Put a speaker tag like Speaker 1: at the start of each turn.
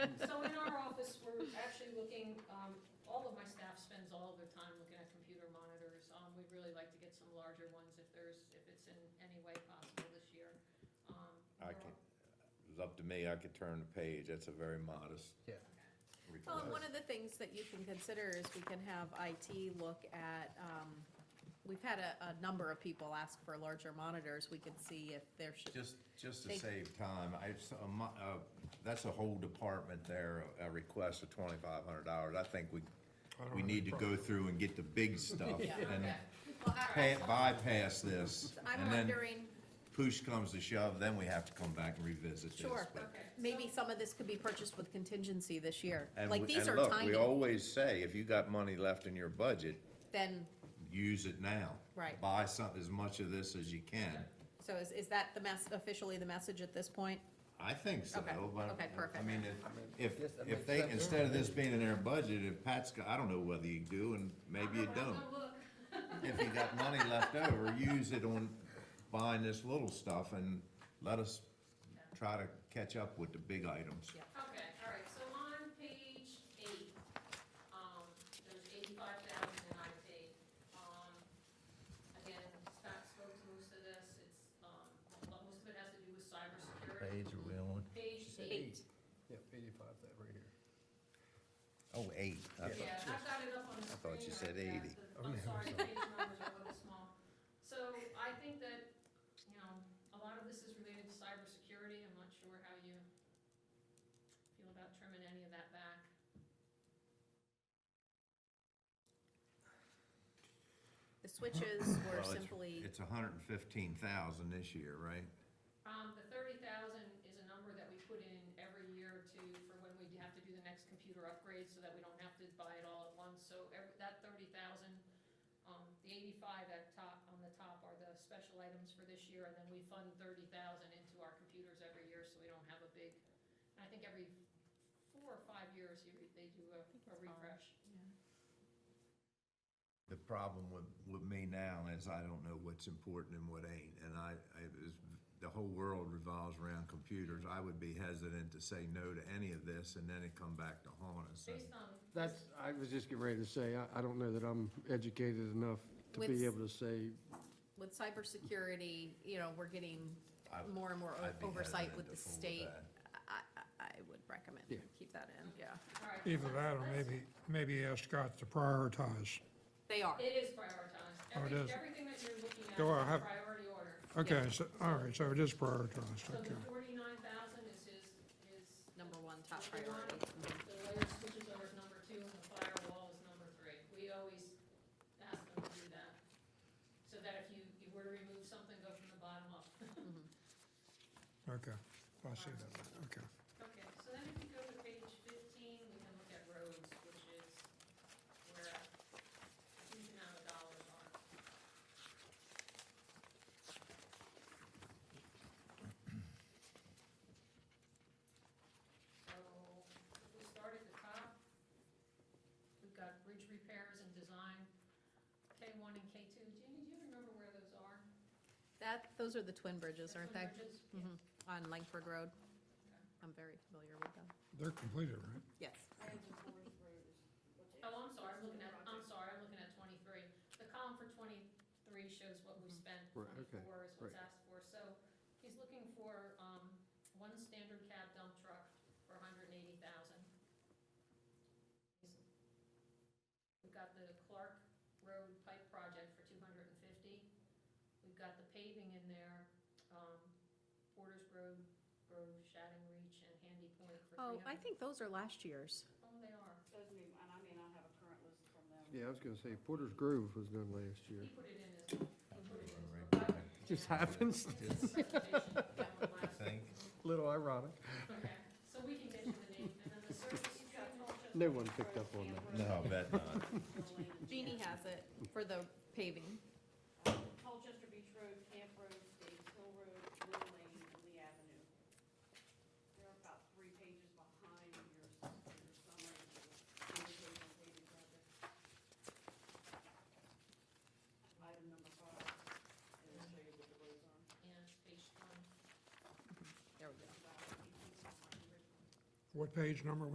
Speaker 1: So in our office, we're actually looking, um, all of my staff spends all of their time looking at computer monitors. Um, we'd really like to get some larger ones if there's, if it's in any way possible this year. Um, we're-
Speaker 2: I can, it's up to me, I could turn the page, that's a very modest
Speaker 3: Well, and one
Speaker 2: request.
Speaker 3: of the things that you can consider is we can have IT look at, um, we've had a, a number of people ask for larger monitors. We can see if there should,
Speaker 2: Just, just to
Speaker 3: They-
Speaker 2: save time, I, s- a mo- uh, that's a whole department there, a request of twenty-five hundred dollars, I think we, we need to go through and get the big stuff
Speaker 3: Yeah.
Speaker 2: and
Speaker 1: Okay.
Speaker 3: Well, I-
Speaker 2: pa- bypass this.
Speaker 3: I'm
Speaker 2: and then
Speaker 3: wondering,
Speaker 2: Push comes to shove, then we have to come back and revisit this.
Speaker 3: Sure.
Speaker 2: but-
Speaker 1: Okay.
Speaker 3: maybe some of this could be purchased with contingency this year.
Speaker 2: And
Speaker 3: Like,
Speaker 2: we-
Speaker 3: these
Speaker 2: and
Speaker 3: are
Speaker 2: look, We
Speaker 3: tiny,
Speaker 2: always say, if you got money left in your budget,
Speaker 3: then,
Speaker 2: use it now.
Speaker 3: Right.
Speaker 2: Buy some, as much of this as you can.
Speaker 3: so is, is that the mess, officially the message at this point?
Speaker 2: I think so,
Speaker 3: Okay,
Speaker 2: but.
Speaker 3: okay,
Speaker 2: I
Speaker 3: perfect.
Speaker 2: mean, if,
Speaker 4: Yes, that
Speaker 2: if,
Speaker 4: makes
Speaker 2: if they,
Speaker 4: sense.
Speaker 2: instead of this being in their budget, if Pat's, got- I don't know whether you do and maybe you
Speaker 1: I'll go- I'll
Speaker 2: don't.
Speaker 1: go look.
Speaker 2: If you got money left over, use it on buying this little stuff and let us try to catch up with the big items.
Speaker 3: Yeah.
Speaker 1: Okay, all right, so on page eight, um, there's eighty-five thousand in IT. Um, again, Scott spoke to most of this, it's, um, well, most of it has to do with cybersecurity.
Speaker 4: Page are we on?
Speaker 1: Page eight,
Speaker 3: Eight.
Speaker 5: Yep, eighty-five, that right here.
Speaker 2: Oh, eight. I thought-
Speaker 1: yeah, I've got it up on the
Speaker 2: I
Speaker 1: screen.
Speaker 2: thought you said
Speaker 1: I've got
Speaker 2: 80.
Speaker 1: the- I'm sorry, the page numbers are a little small. So I think that, you know, a lot of this is related to cybersecurity, I'm not sure how you feel about trimming any of that back.
Speaker 3: The switches were
Speaker 2: Well, it's-
Speaker 3: simply,
Speaker 2: It's a hundred and fifteen thousand this year, right?
Speaker 1: Um, the thirty thousand is a number that we put in every year to, for when we have to do the next computer upgrade, so that we don't have to buy it all at once, so every, that thirty thousand, um, the eighty-five at top, on the top are the special items for this year, and then we fund thirty thousand into our computers every year, so we don't have a big, and I think every four or five years, you, re- they do a,
Speaker 3: think
Speaker 1: a
Speaker 3: it's five.
Speaker 1: refresh.
Speaker 2: The problem with, with me now is I don't know what's important and what ain't, and I, I, is, the whole world revolves around computers. I would be hesitant to say no to any of this, and then it come back to haunt us. And
Speaker 1: Based on.
Speaker 5: That's, I was just getting ready to say, I, I don't know that I'm educated enough to
Speaker 3: With-
Speaker 5: be able to say,
Speaker 3: with cybersecurity, you know, we're getting
Speaker 2: I-
Speaker 3: more and more o-
Speaker 2: I'd be
Speaker 3: oversight with
Speaker 2: hesitant
Speaker 3: the
Speaker 2: to fool with
Speaker 3: state.
Speaker 2: that.
Speaker 3: I, I, I would recommend
Speaker 5: Yeah.
Speaker 3: keep that in, yeah.
Speaker 1: all right,
Speaker 6: Either that or
Speaker 1: let's-
Speaker 6: maybe, maybe ask Scott to prioritize.
Speaker 3: They are.
Speaker 1: It is prioritized.
Speaker 6: Oh, it
Speaker 1: Every-
Speaker 6: is.
Speaker 1: Everything that you're looking at is
Speaker 6: Go on,
Speaker 1: in
Speaker 6: have-
Speaker 1: priority order.
Speaker 6: Okay, so, all right, so it is
Speaker 1: So
Speaker 6: prioritized, okay.
Speaker 1: the forty-nine thousand is his, his.
Speaker 3: Number one top
Speaker 1: number one.
Speaker 3: priority.
Speaker 1: The layer switches over is number two, and the firewall is number three. We always ask them to do that, so that if you, you were to remove something, go from the bottom up.
Speaker 6: Okay, I see that, okay.
Speaker 1: Okay, so then if you go to page fifteen, we can look at roads, which is where a huge amount of dollars are. So, if we start at the top, we've got bridge repairs and design, K one and K two, Jamie, do you remember where those are?
Speaker 3: That, those are the twin bridges,
Speaker 1: That's
Speaker 3: aren't
Speaker 1: when
Speaker 3: they?
Speaker 1: bridges-
Speaker 3: Mhm. On Langford Road. I'm very familiar with them.
Speaker 6: They're completed, right?
Speaker 3: Yes.
Speaker 1: Oh, I'm sorry, I'm looking at, I'm sorry, I'm looking at twenty-three. The column for twenty-three shows what we've spent,
Speaker 5: Mm-hmm. Right, okay,
Speaker 1: twenty-four is what's asked for. So he's looking for, um, one standard cab dump truck for hundred and eighty thousand. We've got the Clark Road Pipe Project for two hundred and fifty. We've got the paving in there, um, Porter's Road, Grove, Shadding Reach, and Handy Point for three
Speaker 3: Oh,
Speaker 1: hundred.
Speaker 3: I think those are last year's.
Speaker 1: Oh, they are.
Speaker 7: Those are new, and I mean, I have a current list from them.
Speaker 5: yeah, I was gonna say Porter's Grove was done last year.
Speaker 1: He put it in his, he put it in his.
Speaker 2: Right.
Speaker 1: book.
Speaker 5: Just
Speaker 1: Yeah.
Speaker 5: happens,
Speaker 1: It's a presentation that went last
Speaker 2: Think.
Speaker 1: week.
Speaker 5: little ironic.
Speaker 1: Okay, so we can get you the name, and then the service stream also-
Speaker 5: No one picked up on that.
Speaker 2: No, I bet not.
Speaker 3: Jeannie has it for the paving.
Speaker 7: Colchester Beach Road, Camp Road, Dave's Hill Road, Little Lane, and Lee Avenue. They're about three pages behind your, your summary. of the individual paving projects. Item number five, and it'll show you what the roads are.
Speaker 1: Yeah, page one.
Speaker 3: There we go.
Speaker 7: About 18,500.
Speaker 6: What page number